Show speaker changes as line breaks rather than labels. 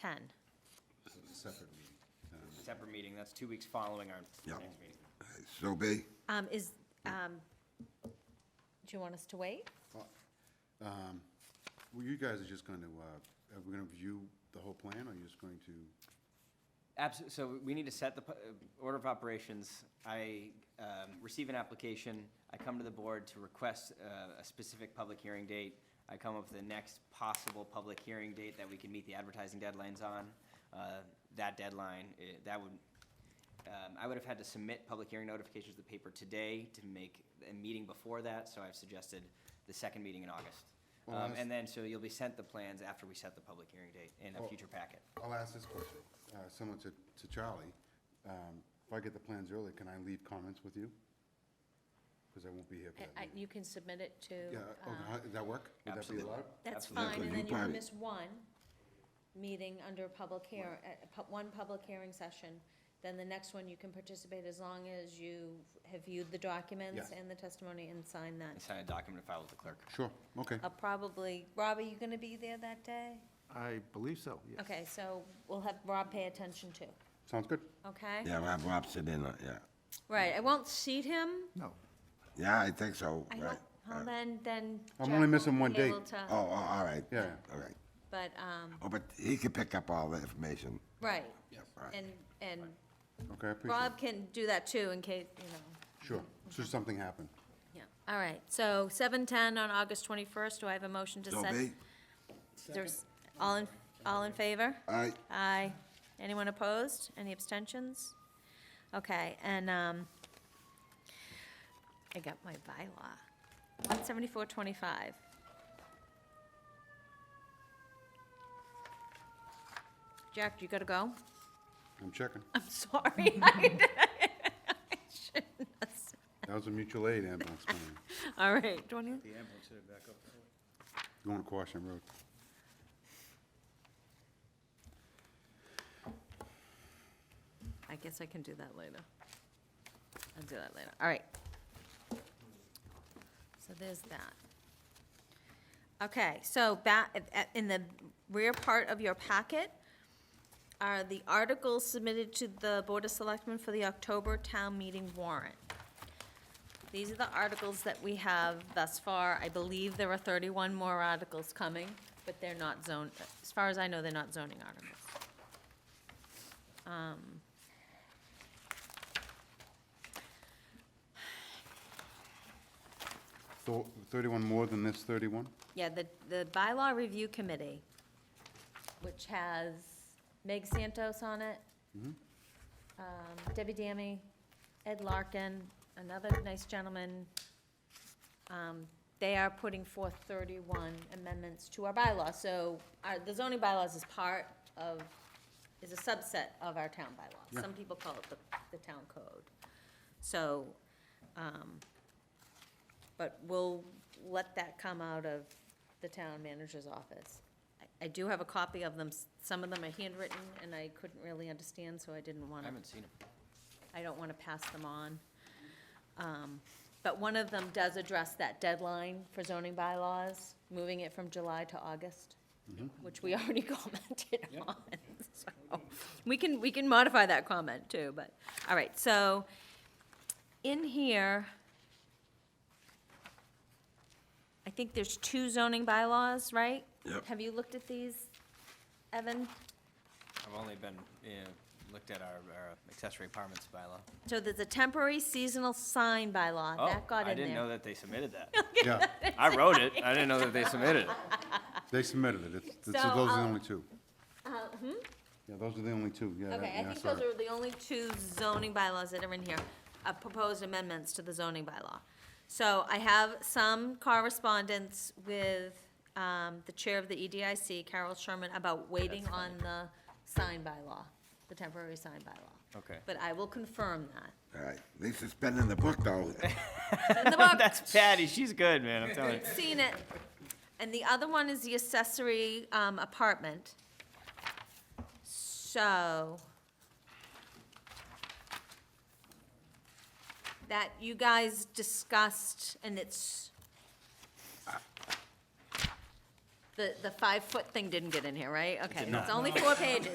10?
Separate meeting. Um,
Separate meeting, that's two weeks following our
Yeah.
next meeting.
So be,
Um, Is, um, do you want us to wait?
Well, you guys are just going to, are we going to view the whole plan, or you're just going to,
Absolutely, so we need to set the pu- uh, order of operations. I um, receive an application, I come to the board to request uh, a specific public hearing date. I come up with the next possible public hearing date that we can meet the advertising deadlines on. Uh, That deadline, eh, that would, um, I would have had to submit public hearing notifications to the paper today to make a meeting before that, so I've suggested the second meeting in August.
Well,
Um,
that's-
And then, so you'll be sent the plans after we set the public hearing date in a
Well-
future packet.
I'll ask this question, uh, similar to to Charlie. Um, If I get the plans early, can I leave comments with you? Because I won't be here for
I-
that
I-
meeting.
You can submit it to,
Yeah, oh,
um,
how- does that work? Would that be
Absolutely.
allowed?
that's fine,
Absolutely.
and
You
then you can
probably-
miss one meeting under a public hear, uh, pu- one public hearing session. Then the next one, you can participate as long as you have viewed the documents
Yes.
and the testimony and sign
I
that.
sign a document and file with the clerk.
Sure, okay.
I'll probably, Rob, are you going to be there that day?
I believe so, yes.
Okay, so we'll have Rob pay attention too,
Sounds good.
okay?
yeah, Rob, Rob sit in, on- yeah.
Right, I won't seat him.
No,
Yeah, I think so,
I
right?
don't, well, then, then.
I'm
Jack
only missing
won't
one
be
date.
able to-
Oh, oh, all right.
Yeah.
All right.
But, um,
Oh, but he could pick up all the information.
right,
All right.
and, and
Okay, I appreciate it.
Rob can do that too in case, you know,
Sure, should something happen.
yeah. All right, so seven ten on August twenty-first, do I have a motion to
So
set?
be,
There's, all in, all in favor?
all right,
Aye. Anyone opposed? Any abstentions? Okay, and, um, I got my bylaw. One seventy-four twenty-five. Jack, you gotta go?
I'm checking.
I'm sorry. I shouldn't have said-
That was a mutual aid ambulance plan,
All right. Do you want to-
going to Quashnet Road.
I guess I can do that later. I'll do that later. All right. So there's that. Okay, so back, in the rear part of your packet are the articles submitted to the Board of Selectmen for the October town meeting warrant. These are the articles that we have thus far. I believe there are 31 more articles coming, but they're not zone, as far as I know, they're not zoning articles. Um,
Thor- 31 more than this 31?
Yeah, the, the bylaw review committee, which has Meg Santos on it, um, Debbie Dammy, Ed Larkin, another nice gentleman. Um, They are putting forth 31 amendments to our bylaw. So our, the zoning bylaws is part of, is a subset of our town bylaw. Some people call it the, the town code. So, um, but we'll let that come out of the town manager's office. I- I do have a copy of them. S- Some of them are handwritten, and I couldn't really understand, so I didn't want
I
to.
haven't seen him.
I don't want to pass them on. Um, But one of them does address that deadline for zoning bylaws, moving it from July to August,
Mm-hmm.
which we already commented on. So, We can, we can modify that comment too, but, all right, so in here, I think there's two zoning bylaws, right?
Yep.
Have you looked at these, Evan?
I've only been, yeah, looked at our, our accessory apartments bylaw.
So there's a temporary seasonal sign bylaw,
Oh,
that got in there.
I didn't know that they submitted that.
Yeah,
I wrote it, I didn't know that they submitted it.
they submitted it, It's- it's-
So,
those are the
I'll- Uh, hmm?
only two. Yeah, those are the only two, yeah. that-
Okay, I
yeah,
think
saw
those
it.
are the only two zoning bylaws that are in here, uh, proposed amendments to the zoning bylaw. So I have some correspondence with um, the chair of the EDIC, Carol Sherman, about waiting
That's
on the sign bylaw, the temporary sign bylaw.
Okay.
But I will confirm that.
all right. At least it's been in the book, though.
In the book.
That's Patty, she's good, man, I'm telling you.
Seen it. And the other one is the accessory um, apartment. So that you guys discussed, and it's the the, the five-foot thing didn't get in here, right? Okay,
did
it's
not.
only four pages.